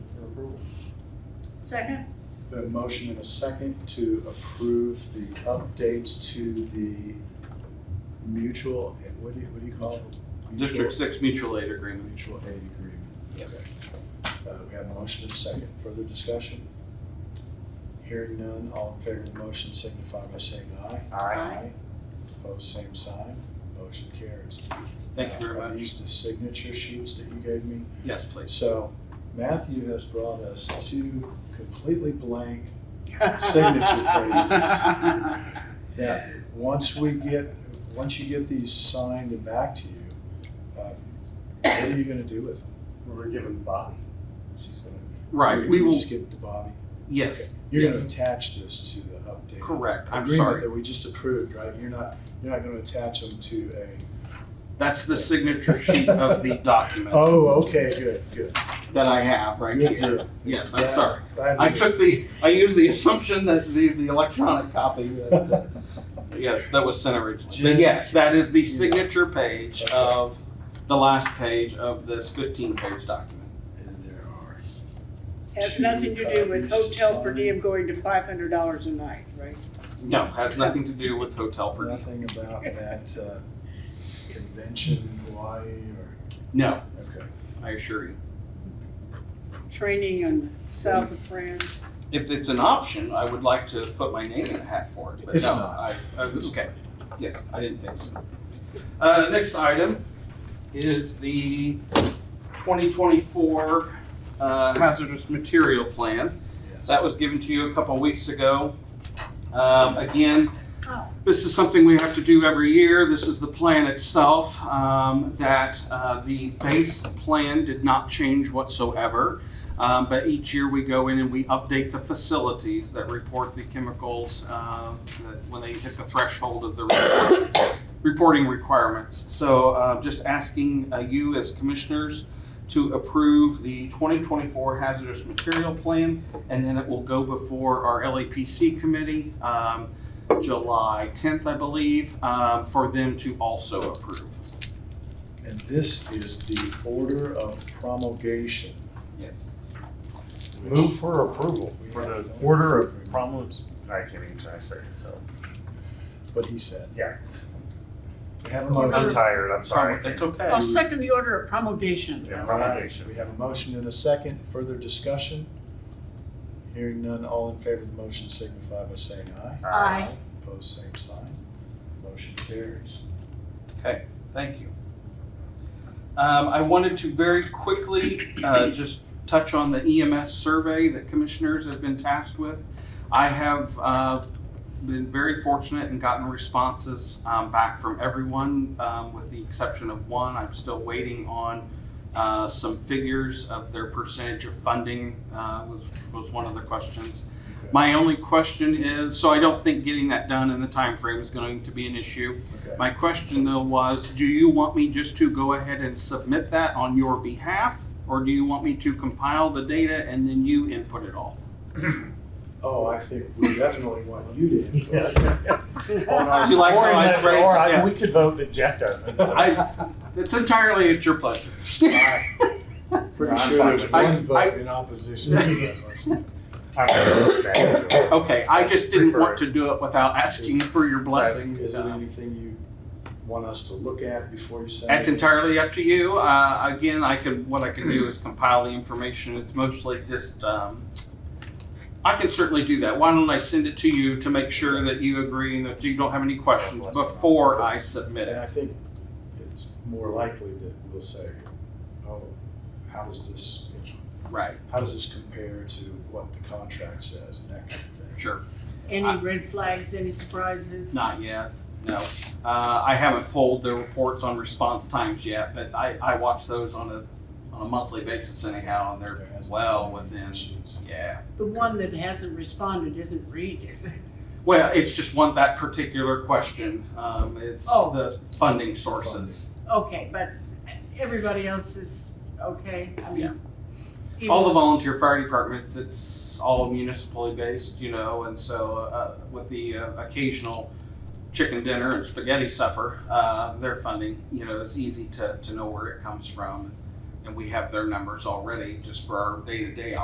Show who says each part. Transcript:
Speaker 1: Second?
Speaker 2: The motion and a second to approve the updates to the mutual, eh, what do you, what do you call it?
Speaker 3: District
Speaker 2: Mutual-
Speaker 3: Six mutual aid agreement.
Speaker 2: Mutual aid agreement. Okay. Uh, we have a motion and a second. Further discussion? Hearing none, all in favor of the motion signify by saying aye. Aye. Opposed, same sign. Motion carries.
Speaker 3: Thank you very
Speaker 2: Uh, Are
Speaker 3: much.
Speaker 2: these the signature sheets that you gave me?
Speaker 3: Yes, please.
Speaker 2: So Matthew has brought us two completely blank signature pages. Now, once we get, once you get these signed and back to you, um, what are you gonna do with them?
Speaker 4: We're giving Bobby. She's gonna.
Speaker 3: Right,
Speaker 2: You're
Speaker 3: we
Speaker 2: gonna
Speaker 3: will,
Speaker 2: Just give it to Bobby.
Speaker 3: yes,
Speaker 2: You're gonna attach this to the update.
Speaker 3: correct. I'm
Speaker 2: Agreement
Speaker 3: sorry.
Speaker 2: that we just approved, right? You're not, you're not gonna attach them to a,
Speaker 3: That's the signature sheet of the document
Speaker 2: oh, okay, good, good.
Speaker 3: that I have right
Speaker 2: Good
Speaker 3: here.
Speaker 2: deal.
Speaker 3: Yes,
Speaker 2: Yeah,
Speaker 3: I'm sorry.
Speaker 2: glad we
Speaker 3: I
Speaker 2: did.
Speaker 3: took the, I used the assumption that the, the electronic copy, that, uh, yes, that was sent originally. But yes, that is the signature page of, the last page of this fifteen-page document.
Speaker 2: And there are
Speaker 1: Has nothing to do with hotel per diem going to five hundred dollars a night, right?
Speaker 3: No, has nothing to do with hotel per diem.
Speaker 2: Nothing about that uh, convention in Hawaii or,
Speaker 3: No,
Speaker 2: okay.
Speaker 3: I assure you.
Speaker 1: Training in south of France.
Speaker 3: If it's an option, I would like to put my name in the hat for it, but
Speaker 2: It's
Speaker 3: no,
Speaker 2: not.
Speaker 3: I, I, okay, yes, I didn't think so. Uh, next item is the twenty twenty-four, uh, hazardous material plan.
Speaker 2: yes.
Speaker 3: That was given to you a couple weeks ago. Um, again,
Speaker 1: Oh.
Speaker 3: this is something we have to do every year. This is the plan itself, um, that, uh, the base plan did not change whatsoever. Um, but each year we go in and we update the facilities that report the chemicals, uh, that when they hit the threshold of the report- reporting requirements. So, uh, just asking, uh, you as commissioners to approve the twenty twenty-four hazardous material plan, and then it will go before our LAPC committee, um, July tenth, I believe, um, for them to also approve.
Speaker 2: And this is the order of promulgation.
Speaker 3: Yes.
Speaker 2: which-
Speaker 4: Move for approval for the order of problems. I can't even try to say it, so.
Speaker 2: What he said.
Speaker 4: Yeah.
Speaker 2: We have a
Speaker 4: I'm
Speaker 2: motion.
Speaker 4: tired, I'm sorry.
Speaker 3: It's okay.
Speaker 1: I'll second the order of promulgation.
Speaker 4: Yeah,
Speaker 2: All right,
Speaker 4: promulgation.
Speaker 2: We have a motion and a second. Further discussion? Hearing none, all in favor of the motion signify by saying aye.
Speaker 1: Aye.
Speaker 2: Opposed, same sign. Motion carries.
Speaker 3: Thank you. Um, I wanted to very quickly uh, just touch on the EMS survey that commissioners have been tasked with. I have uh, been very fortunate and gotten responses um, back from everyone, um, with the exception of one. I'm still waiting on uh, some figures of their percentage of funding uh, was, was one of the questions. My only question is, so I don't think getting that done in the time frame is going to be an issue.
Speaker 2: Okay.
Speaker 3: My question though was, do you want me just to go ahead and submit that on your behalf? Or do you want me to compile the data and then you input it all?
Speaker 2: Oh, I think we definitely want you to. input on
Speaker 3: Do
Speaker 2: our-
Speaker 3: you like how I phrased it?
Speaker 4: Or I,
Speaker 3: Yeah.
Speaker 4: we could vote that Jeff doesn't.
Speaker 3: I- It's entirely at your pleasure.
Speaker 2: Pretty
Speaker 4: I'm
Speaker 2: sure
Speaker 4: fine with
Speaker 2: there's
Speaker 3: it.
Speaker 2: one
Speaker 3: I- I-
Speaker 2: vote in opposition to that motion.
Speaker 4: I'm gonna vote that.
Speaker 3: Okay, I just didn't want
Speaker 4: Prefer
Speaker 3: to do it without asking for your blessing.
Speaker 2: Is it anything you want us to look at before you sign?
Speaker 3: That's
Speaker 2: it?
Speaker 3: entirely up to you. Uh, again, I can, what I can do is compile the information. It's mostly just, um, I can certainly do that. Why don't I send it to you to make sure that you agree and that you don't have any questions before I submit
Speaker 2: And
Speaker 3: it?
Speaker 2: I think it's more likely that we'll say, oh, how does this,
Speaker 3: Right,
Speaker 2: how does this compare to what the contract says and that kind of thing?
Speaker 3: sure.
Speaker 1: Any red flags, any surprises?
Speaker 3: Not yet, no. Uh, I haven't pulled the reports on response times yet, but I, I watch those on a, on a monthly basis anyhow, and
Speaker 2: There
Speaker 3: they're
Speaker 2: hasn't
Speaker 3: well
Speaker 2: been any
Speaker 3: within,
Speaker 2: issues.
Speaker 3: yeah.
Speaker 1: The one that hasn't responded isn't Reed, is it?
Speaker 3: Well, it's just one, that particular question, um, it's
Speaker 1: Oh.
Speaker 3: the funding sources.
Speaker 1: Okay, but everybody else is okay? I mean, even-
Speaker 3: All the volunteer fire departments, it's all municipally based, you know, and so, uh, with the uh, occasional chicken dinner and spaghetti supper, uh, their funding, you know, it's easy to, to know where it comes from. And we have their numbers already just for our day-to-day